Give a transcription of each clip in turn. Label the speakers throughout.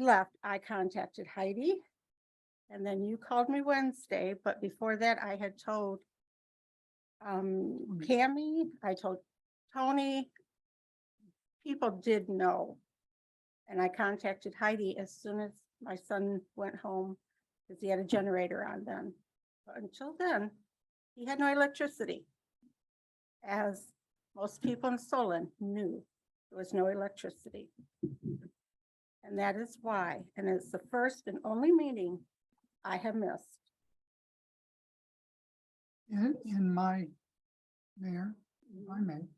Speaker 1: left, I contacted Heidi. And then you called me Wednesday, but before that I had told um, Cammy, I told Tony. People did know. And I contacted Heidi as soon as my son went home, because he had a generator on then. But until then, he had no electricity. As most people in Solon knew, there was no electricity. And that is why, and it's the first and only meeting I have missed.
Speaker 2: in, in my, Mayor, if I may,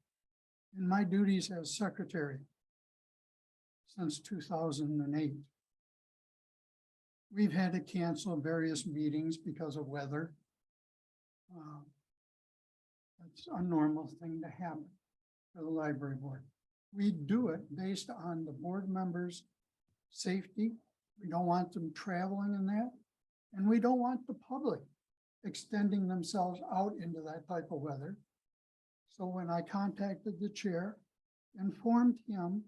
Speaker 2: in my duties as secretary since two thousand and eight, we've had to cancel various meetings because of weather. Uh, That's a normal thing to happen for the library board. We do it based on the board members' safety. We don't want them traveling in that, and we don't want the public extending themselves out into that type of weather. So when I contacted the chair, informed him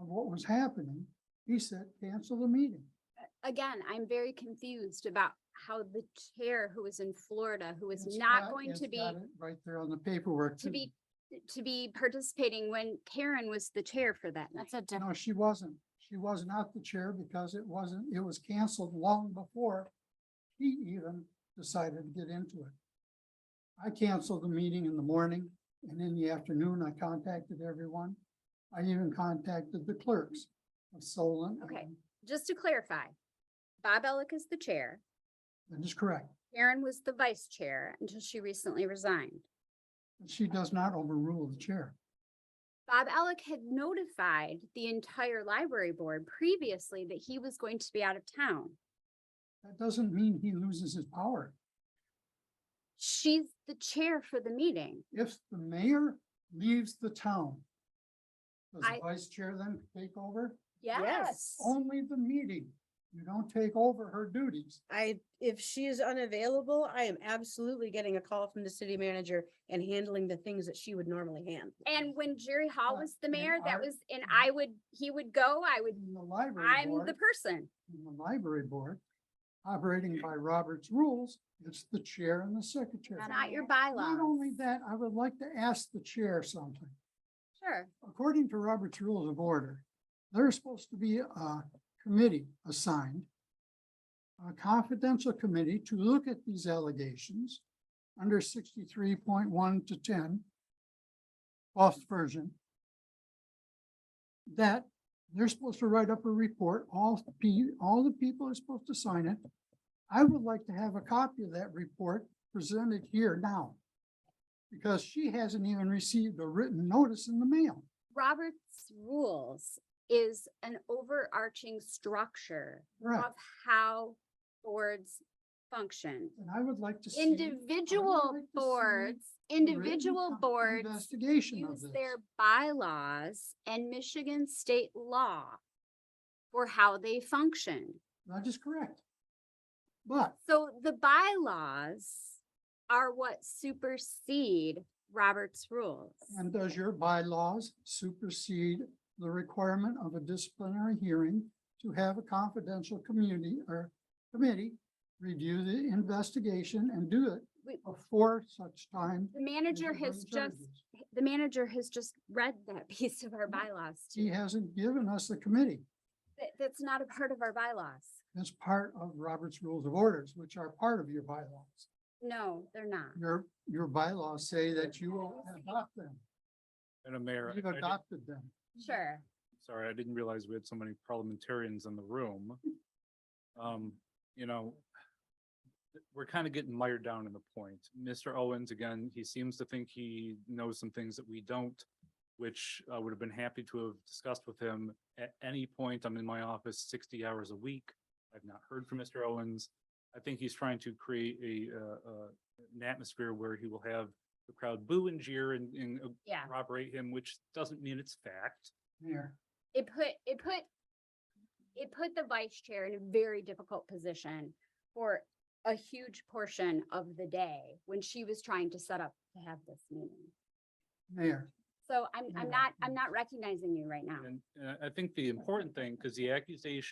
Speaker 2: of what was happening, he said, cancel the meeting.
Speaker 3: again, I'm very confused about how the chair who is in Florida, who is
Speaker 2: It's
Speaker 3: not
Speaker 2: got-
Speaker 3: going
Speaker 2: it's
Speaker 3: to be,
Speaker 2: got it Right there on the paperwork.
Speaker 3: to be, to be participating when Karen was the chair for that night.
Speaker 4: That's a different,
Speaker 2: No, she wasn't. She was not the chair because it wasn't, it was canceled long before he even decided to get into it. I canceled the meeting in the morning and in the afternoon I contacted everyone. I even contacted the clerks of Solon.
Speaker 3: Okay.
Speaker 2: and-
Speaker 3: Just to clarify, Bob Elick is the chair.
Speaker 2: That is correct.
Speaker 3: Karen was the vice chair until she recently resigned.
Speaker 2: She does not overrule the chair.
Speaker 3: Bob Elick had notified the entire library board previously that he was going to be out of town.
Speaker 2: That doesn't mean he loses his power.
Speaker 3: She's the chair for the meeting.
Speaker 2: If the mayor leaves the town, does the
Speaker 3: I-
Speaker 2: vice chair then take over?
Speaker 3: Yes.
Speaker 2: only the meeting. You don't take over her duties.
Speaker 5: I, if she is unavailable, I am absolutely getting a call from the city manager and handling the things that she would normally handle.
Speaker 3: And when Jerry Hall
Speaker 2: But
Speaker 3: was the
Speaker 2: in
Speaker 3: mayor, that
Speaker 2: our-
Speaker 3: was, and I would, he would go, I would
Speaker 2: In the library
Speaker 3: I'm the
Speaker 2: board,
Speaker 3: person.
Speaker 2: in the library board, operating by Robert's rules, it's the chair and the secretary.
Speaker 3: It's not your
Speaker 2: Not only
Speaker 3: bylaws.
Speaker 2: that, I would like to ask the chair something.
Speaker 3: Sure.
Speaker 2: According to Robert's Rules of Order, there's supposed to be a committee assigned, a confidential committee to look at these allegations under sixty-three point one to 10, 12th version. That they're supposed to write up a report, all pe- all the people are supposed to sign it. I would like to have a copy of that report presented here now. Because she hasn't even received a written notice in the mail.
Speaker 3: Robert's rules is an overarching structure
Speaker 2: Right,
Speaker 3: of how boards function.
Speaker 2: and I would like to see.
Speaker 3: Individual
Speaker 2: like to see
Speaker 3: boards,
Speaker 2: a written
Speaker 3: individual
Speaker 2: co-
Speaker 3: boards
Speaker 2: Investigation of
Speaker 3: use
Speaker 2: this.
Speaker 3: their bylaws and Michigan state law for how they function.
Speaker 2: That is correct. But
Speaker 3: So the bylaws are what supersede Robert's rules.
Speaker 2: And does your bylaws supersede the requirement of a disciplinary hearing to have a confidential community or committee review the investigation and do it
Speaker 3: We-
Speaker 2: before such time?
Speaker 3: The
Speaker 2: as
Speaker 3: manager
Speaker 2: you bring
Speaker 3: has just
Speaker 2: charges?
Speaker 3: the manager has just read that piece of our bylaws. to
Speaker 2: He
Speaker 3: me.
Speaker 2: hasn't given us the committee.
Speaker 3: That, that's not a part of our bylaws.
Speaker 2: That's part of Robert's Rules of Orders, which are part of your bylaws.
Speaker 3: No, they're not.
Speaker 2: Your, your bylaws say that you will adopt them.
Speaker 6: Madam Mayor,
Speaker 2: You've
Speaker 6: I- I didn't-
Speaker 2: adopted them.
Speaker 3: Sure.
Speaker 6: sorry, I didn't realize we had so many parliamentarians in the room. Um, you know, th- we're kind of getting mired down in the point. Mr. Owens, again, he seems to think he knows some things that we don't, which I would have been happy to have discussed with him at any point. I'm in my office sixty hours a week. I've not heard from Mr. Owens. I think he's trying to create a, uh, uh, an atmosphere where he will have the crowd boo and jeer and, and
Speaker 3: Yeah.
Speaker 6: corroborate him, which doesn't mean it's fact.
Speaker 2: Mayor,
Speaker 3: It put, it put, it put the vice chair in a very difficult position for a huge portion of the day when she was trying to set up to have this meeting.
Speaker 2: Mayor,
Speaker 3: So I'm, I'm
Speaker 2: Yeah.
Speaker 3: not, I'm not recognizing you right now.
Speaker 6: uh, And, and I- I think the important thing, because the accusation